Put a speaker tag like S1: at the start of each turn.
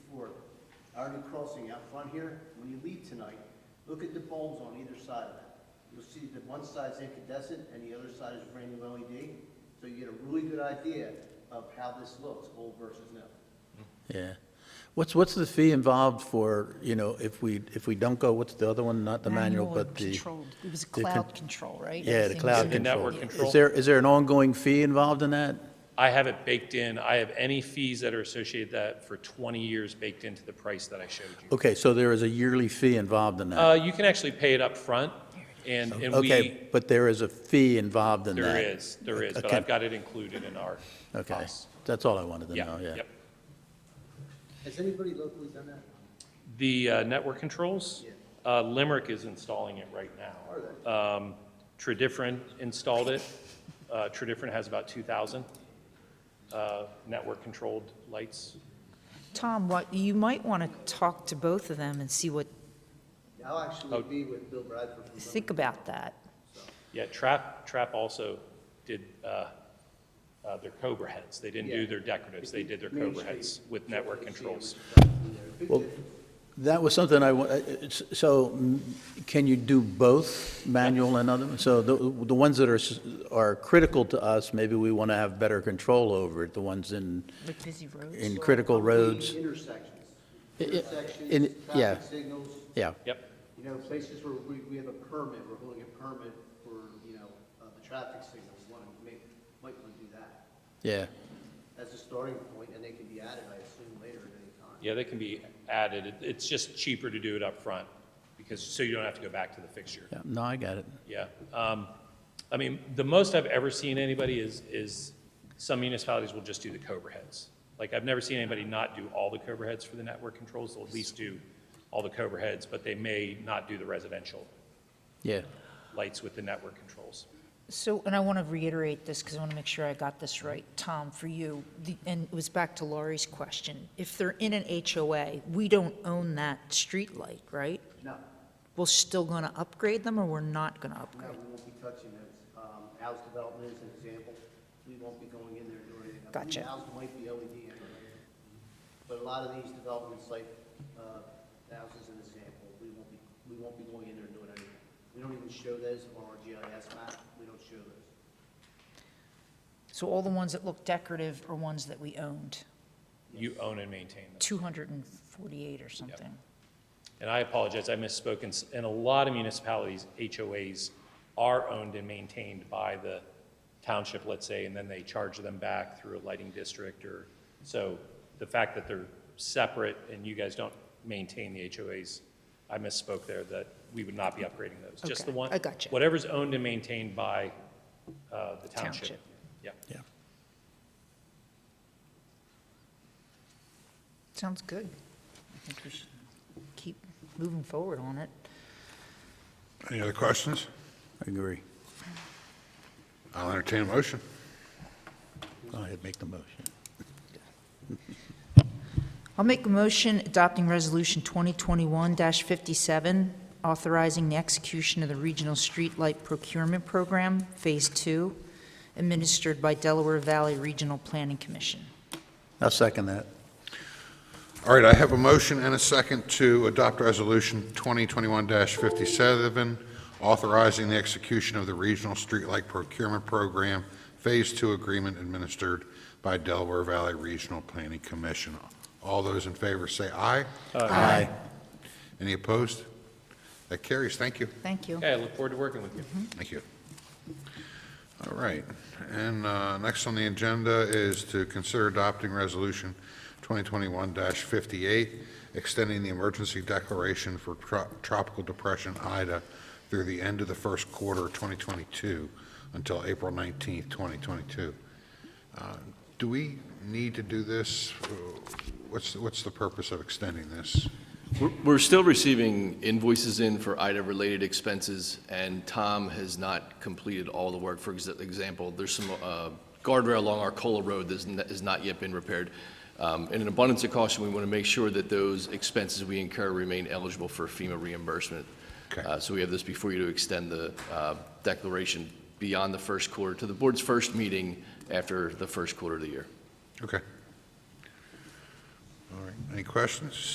S1: Irony Crossing out front here, when you leave tonight, look at the bulbs on either side of that. You'll see that one side's incandescent and the other side is brand new LED. So you get a really good idea of how this looks, old versus new.
S2: Yeah. What's, what's the fee involved for, you know, if we, if we don't go, what's the other one? Not the manual,
S3: Manual
S2: but
S3: and
S2: the.
S3: controlled. It was
S2: the con-
S3: cloud control, right?
S2: Yeah, the
S3: Everything was
S2: cloud
S3: in-
S2: control.
S4: network control.
S2: Is there, is there an ongoing fee involved in that?
S4: I have it baked in. I have any fees that are associated with that for 20 years baked into the price that I showed you.
S2: Okay, so there is a yearly fee involved in that?
S4: Uh, You can actually pay it up front, and, and we,
S2: Okay, but there is a fee involved in that?
S4: there is, there is, but
S2: Okay.
S4: I've got it included in our
S2: Okay,
S4: costs.
S2: that's all I wanted to know,
S4: Yeah,
S2: yeah.
S4: yep.
S1: Has anybody locally done that?
S4: The uh, network controls,
S1: Yeah.
S4: uh, Limerick is installing it right now. Um, Tridifern installed it. Uh, Tridifern has about 2,000 uh, network-controlled lights.
S3: Tom, what, you might want to talk to both of them and see what,
S1: I'll
S4: oh.
S1: actually be with Bill Bradford. from-
S3: think about that.
S4: Yeah, Trap, Trap also did uh, uh, their Cobra heads. They didn't do
S1: Yeah.
S4: their decoratives, they did their
S1: Main
S4: Cobra
S1: Street.
S4: heads with network controls.
S2: Well, that was something I, wa- uh, it's- so mm, can you do both, manual and other? So the, the ones that are, s- are critical to us, maybe we want to have better control over it, the ones in,
S3: Like busy roads.
S2: in critical roads?
S1: Intersections.
S2: I- I-
S1: Intersections,
S2: in- yeah.
S1: traffic signals.
S2: Yeah,
S4: Yep,
S1: You know, places where we, we have a permit, we're holding a permit for, you know, uh, the traffic signals, one, may- might want to do that
S2: yeah.
S1: as a starting point, and they can be added, I assume, later at any time.
S4: yeah, they can be added. It- It's just cheaper to do it up front because, so you don't have to go back to the fixture.
S2: Yeah, No, I got it.
S4: Yeah. Um, I mean, the most I've ever seen anybody is, is some municipalities will just do the Cobra heads. Like, I've never seen anybody not do all the Cobra heads for the network controls. They'll at least do all the Cobra heads, but they may not do the residential
S2: Yeah.
S4: lights with the network controls.
S3: So, and I want to reiterate this because I want to make sure I got this right. Tom, for you, the- and it was back to Laurie's question. If they're in an HOA, we don't own that streetlight, right?
S1: No,
S3: We're still going to upgrade them or we're not going to
S1: no,
S3: upgrade?
S1: we won't be touching those. Um, Al's development is an example, we won't be going in there doing anything. I believe
S3: Gotcha.
S1: Al's might be LED anyway, but a lot of these developments, like, uh, Al's is an example, we won't be, we won't be going in there doing anything. We don't even show those on our GIS map, we don't show those.
S3: So all the ones that look decorative are ones that we owned,
S4: You own and maintain them.
S3: 248 or something.
S4: And I apologize, I misspoke. In s- In a lot of municipalities, HOAs are owned and maintained by the township, let's say, and then they charge them back through a lighting district or, so the fact that they're separate and you guys don't maintain the HOAs, I misspoke there, that we would not be upgrading those. Just the
S3: Okay,
S4: one.
S3: I gotcha.
S4: Whatever's owned and maintained by uh, the township.
S3: Township.
S4: Yeah.
S2: Yeah.
S3: Sounds good. I think we should keep moving forward on it.
S5: Any other questions?
S2: I agree.
S5: I'll entertain a motion.
S2: Go ahead, make the motion.
S3: I'll make a motion adopting Resolution 2021-57, authorizing the execution of the Regional Streetlight Procurement Program, Phase 2, administered by Delaware Valley Regional Planning Commission.
S2: I'll second that.
S5: All right, I have a motion and a second to adopt Resolution 2021-57, authorizing the execution of the Regional Streetlight Procurement Program Phase Two Agreement administered by Delaware Valley Regional Planning Commission. All those in favor say aye.
S2: Aye.
S5: Any opposed? That carries. Thank you.
S3: Thank you.
S4: Okay, I look forward to working with you.
S5: Thank you. All right, and uh, next on the agenda is to consider adopting Resolution 2021-58, extending the emergency declaration for tro- Tropical Depression Ida through the end of the first quarter of 2022 until April 19th, 2022. Uh, Do we need to do this? What's, what's the purpose of extending this?
S6: We're- We're still receiving invoices in for IDA-related expenses, and Tom has not completed all the work. For exa- example, there's some uh, guardrail along Arcola Road that has not yet been repaired. Um, In an abundance of caution, we want to make sure that those expenses we incur remain eligible for FEMA reimbursement.
S5: Okay.
S6: Uh, So we have this before you to extend the uh, declaration beyond the first quarter to the board's first meeting after the first quarter of the year.
S5: Okay. All right, any questions?